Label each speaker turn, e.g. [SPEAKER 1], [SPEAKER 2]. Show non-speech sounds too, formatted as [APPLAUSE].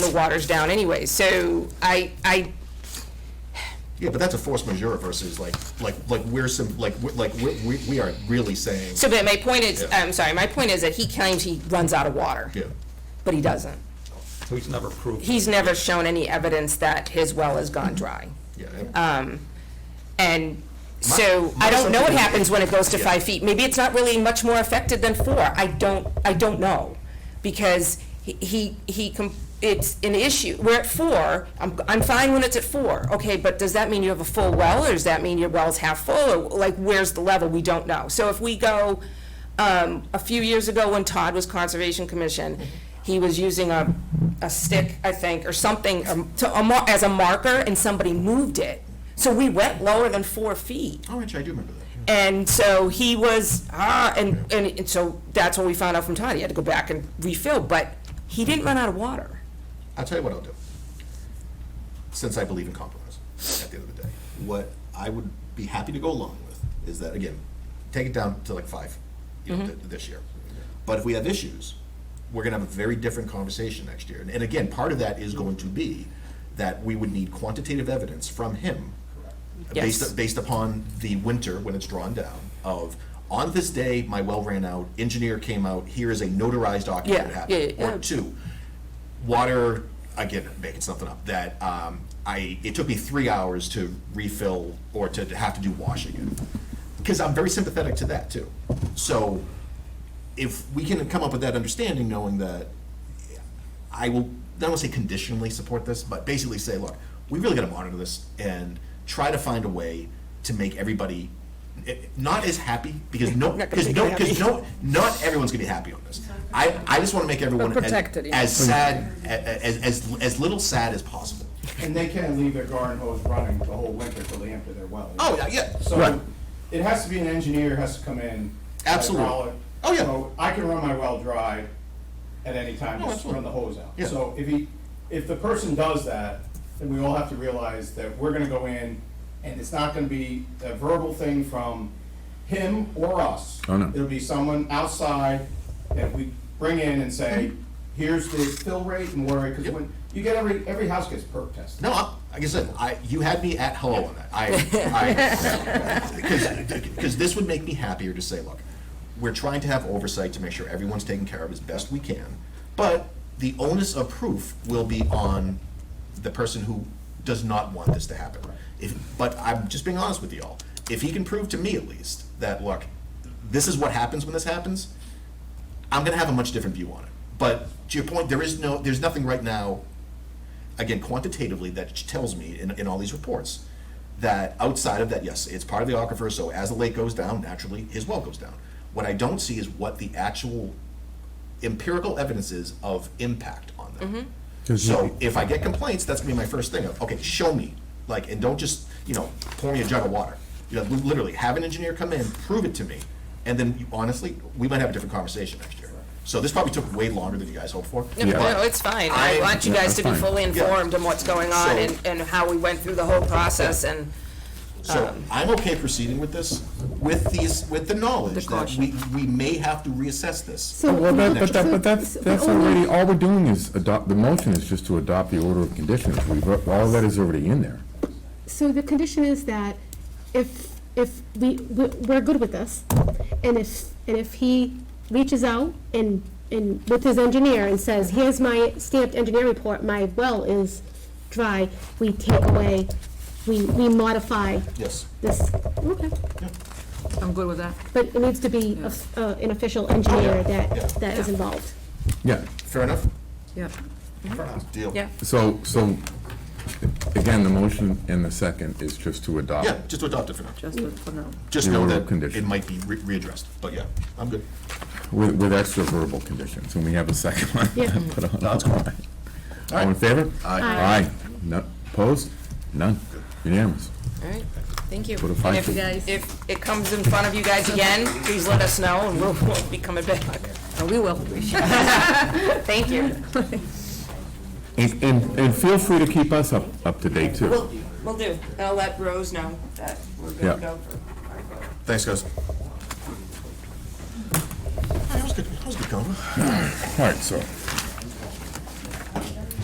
[SPEAKER 1] the water's down anyway. So I, I,
[SPEAKER 2] Yeah, but that's a force majeure versus like, like, like we're some, like, we- like, we, we- we are really saying,
[SPEAKER 1] so but my point is,
[SPEAKER 2] Yeah.
[SPEAKER 1] I'm sorry, my point is that he claims he runs out of water.
[SPEAKER 2] yeah.
[SPEAKER 1] But he doesn't.
[SPEAKER 3] Who's never proved.
[SPEAKER 1] He's never shown any evidence that his well has gone dry.
[SPEAKER 2] Yeah,
[SPEAKER 1] And so
[SPEAKER 2] My-
[SPEAKER 1] I don't know what
[SPEAKER 2] my-
[SPEAKER 1] happens when it goes to
[SPEAKER 2] Yeah.
[SPEAKER 1] five feet. Maybe it's not really much more affected than four. I don't, I don't know. Because he- he, he, com- it's an issue. We're at four. I'm, I'm fine when it's at four. Okay, but does that mean you have a full well or does that mean your well's half full? Or like, where's the level? We don't know. So if we go, um, a few years ago when Todd was Conservation Commission, he was using a, a stick, I think, or something, um, to, a mar- as a marker, and somebody moved it. So we went lower than four feet.
[SPEAKER 2] oh, actually, I do remember that.
[SPEAKER 1] And so he was, ah, and, and, and so that's when we found out from Todd, he had to go back and refill, but he didn't run out of water.
[SPEAKER 2] I'll tell you what I'll do. Since I believe in compromise at the end of the day, what I would be happy to go along with is that, again, take it down to like five, you know, th- this year. But if we have issues, we're gonna have a very different conversation next year. And, and again, part of that is going to be that we would need quantitative evidence from him
[SPEAKER 1] Yes.
[SPEAKER 2] based, based upon the winter when it's drawn down of, on this day, my well ran out, engineer came out, here is a notarized document that
[SPEAKER 1] Yeah, yeah,
[SPEAKER 2] happened.
[SPEAKER 1] yeah, yeah.
[SPEAKER 2] Or two, water, again, making something up, that um, I, it took me three hours to refill or to have to do washing it. Because I'm very sympathetic to that too. So if we can come up with that understanding, knowing that I will, I don't want to say conditionally support this, but basically say, look, we really got to monitor this and try to find a way to make everybody eh, not as happy
[SPEAKER 1] [LAUGHS]
[SPEAKER 2] because no,
[SPEAKER 1] gonna
[SPEAKER 2] because
[SPEAKER 1] make
[SPEAKER 2] no,
[SPEAKER 1] you
[SPEAKER 2] because no, not everyone's going to be happy on this. I, I just want to make everyone as,
[SPEAKER 1] protected, yeah.
[SPEAKER 2] as sad, a- a- as, as, as little sad as possible.
[SPEAKER 4] And they can leave their garden hose running the whole winter till they empty their well.
[SPEAKER 2] Oh, yeah, yeah.
[SPEAKER 4] So it has to be an engineer has to come in.
[SPEAKER 2] Absolutely.
[SPEAKER 4] hydraulic.
[SPEAKER 2] Oh, yeah.
[SPEAKER 4] So I can run my well dry at any time,
[SPEAKER 2] Oh,
[SPEAKER 4] just
[SPEAKER 2] absolutely.
[SPEAKER 4] run the hose out.
[SPEAKER 2] Yeah.
[SPEAKER 4] So if he, if the person does that, then we all have to realize that we're gonna go in and it's not gonna be a verbal thing from him or us.
[SPEAKER 5] Oh, no.
[SPEAKER 4] It'll be someone outside that we bring in and say, here's the fill rate and worry, because
[SPEAKER 2] Mm-hmm. Yep.
[SPEAKER 4] when, you get every, every house gets perk tested.
[SPEAKER 2] No, I, like I said, I, you had me at hello on that. I, I, because, because this would make me happier to say, look, we're trying to have oversight to make sure everyone's taken care of as best we can, but the onus of proof will be on the person who does not want this to happen. If, but I'm just being honest with y'all. If he can prove to me at least that, look, this is what happens when this happens, I'm gonna have a much different view on it. But to your point, there is no, there's nothing right now again, quantitatively, that tells me in, in all these reports, that outside of that, yes, it's part of the aquifer, so as the lake goes down, naturally, his well goes down. What I don't see is what the actual empirical evidence is of impact on
[SPEAKER 1] Mm-hmm.
[SPEAKER 2] them. So if I get complaints, that's gonna be my first thing of, okay, show me, like, and don't just, you know, pour me a jug of water. You know, li- literally, have an engineer come in, prove it to me, and then you- honestly, we might have a different conversation next year. So this probably took way longer than you guys hoped for.
[SPEAKER 1] No,
[SPEAKER 2] but
[SPEAKER 1] no, it's fine. I want you guys to be
[SPEAKER 5] fine.
[SPEAKER 1] fully informed on what's going on
[SPEAKER 2] So-
[SPEAKER 1] and, and how we went through the whole process and.
[SPEAKER 2] So
[SPEAKER 6] Um,
[SPEAKER 2] I'm okay proceeding with this, with these, with the knowledge that we, we may have to reassess this.
[SPEAKER 5] So, well, that, but
[SPEAKER 2] next
[SPEAKER 5] that,
[SPEAKER 2] year.
[SPEAKER 5] but that's, that's already, all we're doing is adopt, the motion is just to adopt the order of conditions. We've, all that is already in there.
[SPEAKER 7] So the condition is that if, if we, we- we're good with this, and if, and if he reaches out and, and with his engineer and says, here's my stamped engineer report, my well is dry, we take away, we, we modify
[SPEAKER 2] Yes.
[SPEAKER 7] this, okay.
[SPEAKER 6] I'm good with that.
[SPEAKER 7] But it needs to be a f- uh, an official engineer
[SPEAKER 2] Yeah.
[SPEAKER 7] that, that is
[SPEAKER 6] Yeah.
[SPEAKER 7] involved.
[SPEAKER 5] Yeah,
[SPEAKER 2] Fair enough?
[SPEAKER 6] Yeah.
[SPEAKER 2] Fair enough. Deal.
[SPEAKER 1] Yeah.
[SPEAKER 5] so, so, again, the motion and the second is just to adopt.
[SPEAKER 2] Yeah, just to adopt it for now.
[SPEAKER 6] Just for now.
[SPEAKER 2] Just
[SPEAKER 5] The
[SPEAKER 2] know
[SPEAKER 5] order of
[SPEAKER 2] that it
[SPEAKER 5] condition.
[SPEAKER 2] might be re- readdressed, but yeah, I'm good.
[SPEAKER 5] With, with extra verbal conditions, and we have a second one.
[SPEAKER 7] Yeah.
[SPEAKER 5] [LAUGHS] Put on. All in favor? Aye. Aye. No, opposed? None. Unanimous.
[SPEAKER 1] All right, thank you.
[SPEAKER 5] Put a fine
[SPEAKER 1] And if-
[SPEAKER 5] to-
[SPEAKER 6] Guys.
[SPEAKER 1] If it comes in front of you guys again, please let us know and we'll, we'll be coming back.
[SPEAKER 6] Oh, we will.
[SPEAKER 1] [LAUGHS] Thank you.
[SPEAKER 5] And, and, and feel free to keep us up, up to date too.
[SPEAKER 1] We'll, we'll do. And I'll let Rose know that we're good to
[SPEAKER 5] Yeah.
[SPEAKER 1] go for our vote.
[SPEAKER 2] Thanks, guys. All right, That was good, that was good, Conan.
[SPEAKER 5] All right, so.